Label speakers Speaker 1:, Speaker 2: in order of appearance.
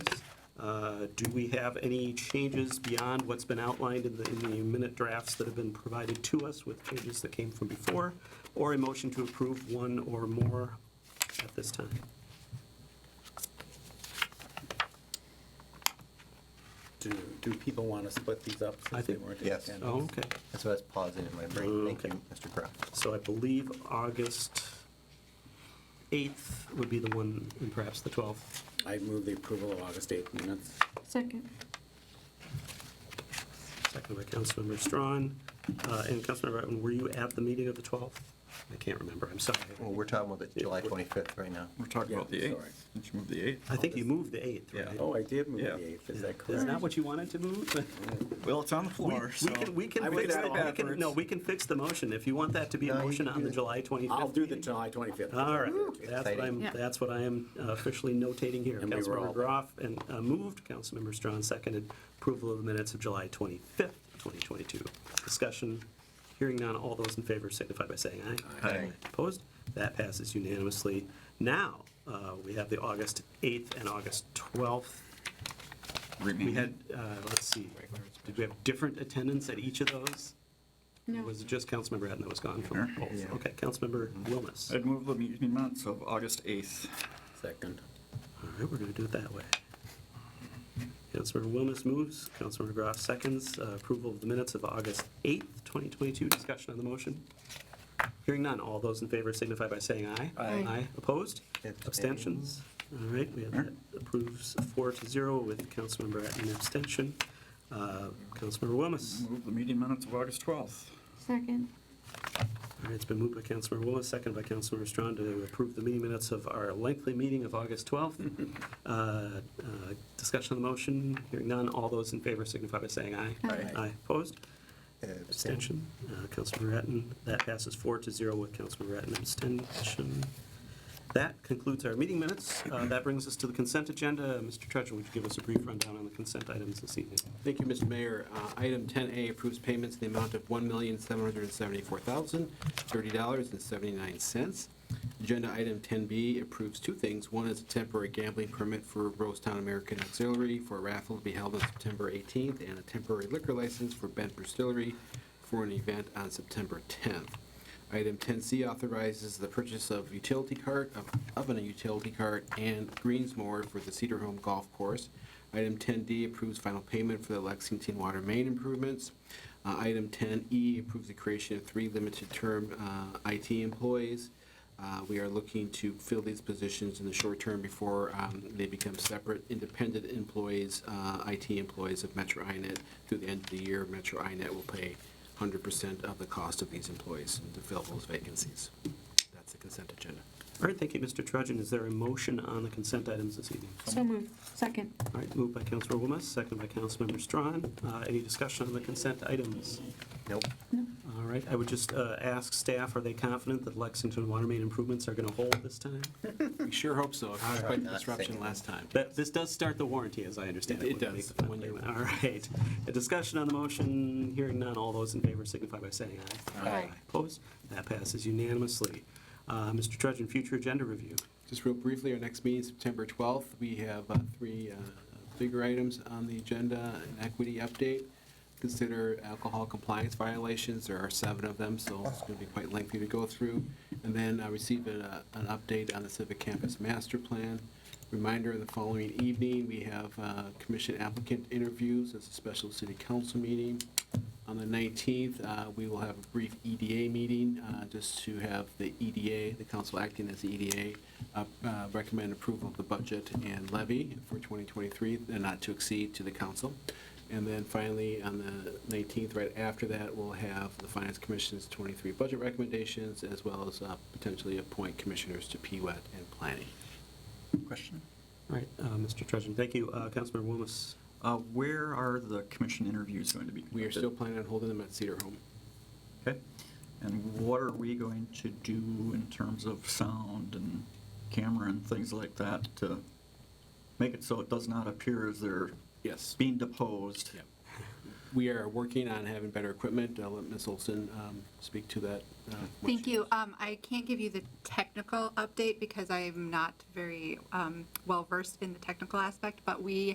Speaker 1: Uh, Do we have any changes beyond what's been outlined in the, in the minute drafts that have been provided to us with changes that came from before? Or a motion to approve one or more at this time?
Speaker 2: Do, do people want to split these up
Speaker 1: I
Speaker 2: since they
Speaker 1: think-
Speaker 2: weren't?
Speaker 3: Yes.
Speaker 2: in attendance?
Speaker 1: Oh, okay.
Speaker 3: That's what I was pausing in my brain. Thank
Speaker 1: Okay.
Speaker 3: you, Mr. Kraft.
Speaker 1: So I believe August 8th would be the one, and perhaps the 12th.
Speaker 2: I move the approval of August 8th minutes.
Speaker 4: Second.
Speaker 1: Second by Councilmember Strawn. Uh, And Councilmember Atten, were you at the meeting of the 12th? I can't remember, I'm sorry.
Speaker 2: Oh.
Speaker 3: Well, we're talking about the July 25th right now.
Speaker 5: We're talking about the
Speaker 2: Yeah,
Speaker 5: 8th.
Speaker 2: sorry.
Speaker 5: Did you move the 8th?
Speaker 1: I think you moved the 8th,
Speaker 5: Yeah.
Speaker 1: right?
Speaker 2: Oh, I did move the
Speaker 5: Yeah.
Speaker 2: 8th, is that
Speaker 1: Is that
Speaker 2: correct?
Speaker 1: what you wanted to move?
Speaker 5: Well, it's on the
Speaker 1: We
Speaker 5: floor, so.
Speaker 1: we can, we
Speaker 2: I
Speaker 1: can
Speaker 2: would
Speaker 1: fix,
Speaker 2: say
Speaker 1: the- we can, no,
Speaker 5: backwards.
Speaker 1: we can fix the motion. If you want that to be a
Speaker 3: No, you
Speaker 1: motion
Speaker 3: can
Speaker 1: on
Speaker 3: do
Speaker 1: the
Speaker 3: it.
Speaker 1: July 25th.
Speaker 2: I'll do the
Speaker 1: meeting.
Speaker 2: July 25th.
Speaker 1: All right, that's what
Speaker 3: Exciting.
Speaker 1: I'm,
Speaker 4: Yeah.
Speaker 1: that's what I am uh, officially notating here.
Speaker 2: And we were
Speaker 1: Councilmember
Speaker 2: all-
Speaker 1: Groff and uh, moved, Councilmember Strawn seconded, approval of the minutes of July 25th, 2022. Discussion, hearing none, all those in favor signify by saying aye.
Speaker 3: Aye.
Speaker 1: Opposed? That passes unanimously. Now, uh, we have the August 8th and August 12th we had, uh, let's see, did we have different attendance at each of those?
Speaker 4: No.
Speaker 1: Was it just Councilmember Atten that was gone from both?
Speaker 3: Yeah.
Speaker 1: Okay, Councilmember Wilmus.
Speaker 5: I'd move the meeting minutes of August 8th.
Speaker 2: Second.
Speaker 1: All right, we're going to do it that way. Councilmember Wilmus moves, Councilmember Graff seconds, uh, approval of the minutes of August 8th, 2022. Discussion on the motion? Hearing none, all those in favor signify by saying aye.
Speaker 4: Aye.
Speaker 1: Aye, opposed?
Speaker 3: Abstain.
Speaker 1: Abstentions? All right, we have that approves four to zero with Councilmember Atten abstention. Uh, Councilmember Wilmus.
Speaker 5: Move the meeting minutes of August 12th.
Speaker 4: Second.
Speaker 1: All right, it's been moved by Councilmember Willis, second by Councilmember Strawn to approve the meeting minutes of our lengthy meeting of August 12th. Uh, uh, Discussion on the motion, hearing none, all those in favor signify by saying aye.
Speaker 5: Aye.
Speaker 1: Aye, opposed,
Speaker 3: Abstain.
Speaker 1: abstention, Uh, Councilmember Ratten, that passes four to zero with Councilmember Ratten abstention. That concludes our meeting minutes. Uh, That brings us to the consent agenda. Mr. Treasurer, would you give us a brief rundown on the consent items this evening?
Speaker 6: Thank you, Mr. Mayor. Uh, Item 10A approves payments in the amount of $1,774,030.79. Agenda item 10B approves two things. One is a temporary gambling permit for Rosetown American Auxiliary for a raffle to be held on September 18th, and a temporary liquor license for Bent Distillery for an event on September 10th. Item 10C authorizes the purchase of utility cart, of- of a utility cart, and greensmower for the Cedar Home Golf Course. Item 10D approves final payment for the Lexington Water Main improvements. Uh, Item 10E approves the creation of three limited-term uh, IT employees. Uh, We are looking to fill these positions in the short term before um, they become separate, independent employees, uh, IT employees of Metro INET. Through the end of the year, Metro INET will pay 100% of the cost of these employees to fill those vacancies. That's the consent agenda.
Speaker 1: All right, thank you, Mr. Trudgeon. Is there a motion on the consent items this evening?
Speaker 4: So moved. Second.
Speaker 1: All right, moved by Councilor Wilmes, second by Councilmember Strawn. Uh, Any discussion on the consent items?
Speaker 3: Nope.
Speaker 1: All right, I would just uh, ask staff, are they confident that Lexington water main improvements are going to hold this time?
Speaker 6: We sure hope so. It caused quite the disruption
Speaker 3: Not
Speaker 6: last time.
Speaker 1: That, this does start the warranty, as I understand it.
Speaker 6: It- it
Speaker 1: when you make
Speaker 6: does,
Speaker 1: the final
Speaker 6: when you-
Speaker 1: payment. All right. A discussion on the motion, hearing none, all those in favor signify by saying aye.
Speaker 4: Aye.
Speaker 1: Opposed? That passes unanimously. Uh, Mr. Trudgeon, future agenda review.
Speaker 6: Just real briefly, our next meeting, September 12th, we have uh, three uh, bigger items on the agenda, an equity update, consider alcohol compliance violations, there are seven of them, so it's going to be quite lengthy to go through, and then uh, receive an uh, an update on the Civic Campus Master Plan. Reminder, the following evening, we have uh, commission applicant interviews, it's a special city council meeting. On the 19th, uh, we will have a brief EDA meeting, uh, just to have the EDA, the council acting as the EDA, uh, uh, recommend approval of the budget and levy for 2023, and not to exceed to the council. And then finally, on the 19th, right after that, we'll have the Finance Commission's 23 budget recommendations, as well as uh, potentially appoint commissioners to PWET and planning.
Speaker 5: Question?
Speaker 1: All right, uh, Mr. Trudgeon, thank you. Uh, Councilmember Wilmes.
Speaker 5: Uh, Where are the commission interviews going to be?
Speaker 6: We are
Speaker 5: conducted?
Speaker 6: still planning on holding them at Cedar Home.
Speaker 5: Okay. And what are we going to do in terms of sound and camera and things like that to make it so it does not appear as they're
Speaker 6: Yes.
Speaker 5: being deposed?
Speaker 6: Yep. We are working on having better equipment. I'll let Ms. Olson um, speak to that. uh, when
Speaker 7: Thank
Speaker 6: she-
Speaker 7: you. Um, I can't give you the technical update because I am not very um, well versed in the technical aspect, but we